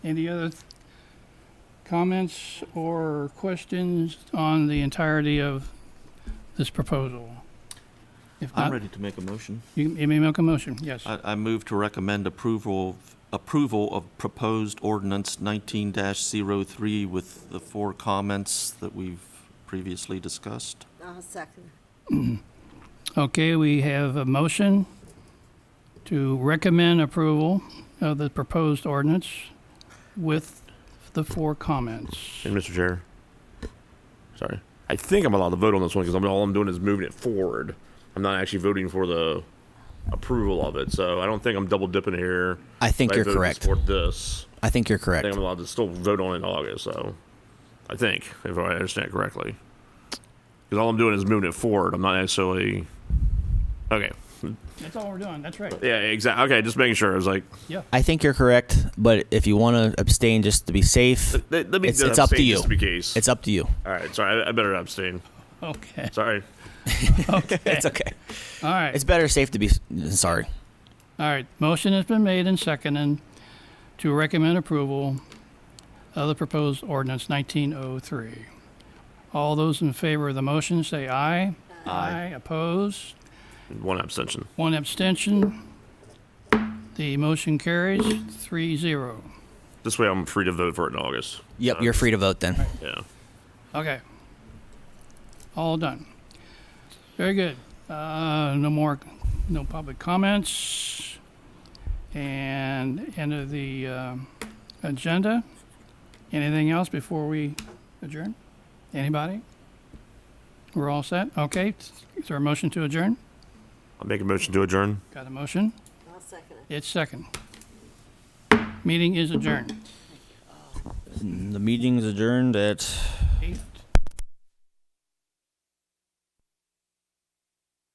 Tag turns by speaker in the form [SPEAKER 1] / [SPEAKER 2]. [SPEAKER 1] Any other th- comments or questions on the entirety of this proposal? If
[SPEAKER 2] I'm
[SPEAKER 1] not,
[SPEAKER 2] ready to make a motion.
[SPEAKER 1] you you may make a motion, yes.
[SPEAKER 2] Uh, I, I move to recommend approval, approval of proposed ordinance nineteen 3 with the four comments that we've previously discussed.
[SPEAKER 3] I'll second.
[SPEAKER 1] Okay, we have a motion to recommend approval of the proposed ordinance with the four comments.
[SPEAKER 4] And Mr. Chair, sorry, I think I'm allowed to vote on this one because I'm, all I'm doing is moving it forward. I'm not actually voting for the approval of it, so I don't think I'm double dipping here.
[SPEAKER 5] I think you're
[SPEAKER 4] voted
[SPEAKER 5] correct.
[SPEAKER 4] For this,
[SPEAKER 5] I think you're
[SPEAKER 4] I think
[SPEAKER 5] correct.
[SPEAKER 4] I'm allowed to still vote on it in August. So, I think if I understand correctly, because all I'm doing is moving it forward. I'm not actually. Okay.
[SPEAKER 1] That's all we're doing, that's right,
[SPEAKER 4] Yeah. Exactly. Okay. Just making sure. I was like,
[SPEAKER 1] yeah.
[SPEAKER 5] I think you're correct, but if you want to abstain just to be safe,
[SPEAKER 4] let- let let me.
[SPEAKER 5] It's-
[SPEAKER 4] just
[SPEAKER 5] it's up to
[SPEAKER 4] abstain
[SPEAKER 5] you.
[SPEAKER 4] Just to be case.
[SPEAKER 5] it's up to you.
[SPEAKER 4] all right. Sorry. I, I better abstain.
[SPEAKER 1] Okay,
[SPEAKER 4] Sorry.
[SPEAKER 5] It's okay.
[SPEAKER 1] all right.
[SPEAKER 5] It's better safe to be sorry.
[SPEAKER 1] All right, motion has been made and seconded to recommend approval of the proposed ordinance 1903. All those in favor of the motion say aye. Aye. Opposed?
[SPEAKER 4] One abstention.
[SPEAKER 1] One abstention. The motion carries 3-0.
[SPEAKER 4] This way, I'm free to vote for it in August.
[SPEAKER 5] Yep, you're free to vote then.
[SPEAKER 4] Yeah.
[SPEAKER 1] Okay. All done. Very good. Uh, no more, no public comments. And end of the um, agenda. Anything else before we adjourn? Anybody? We're all set? Okay. Is there a motion to adjourn?
[SPEAKER 4] I'll make a motion to adjourn.
[SPEAKER 1] Got a motion?
[SPEAKER 3] I'll second it.
[SPEAKER 1] It's second. Meeting is adjourned.
[SPEAKER 5] The meeting's adjourned at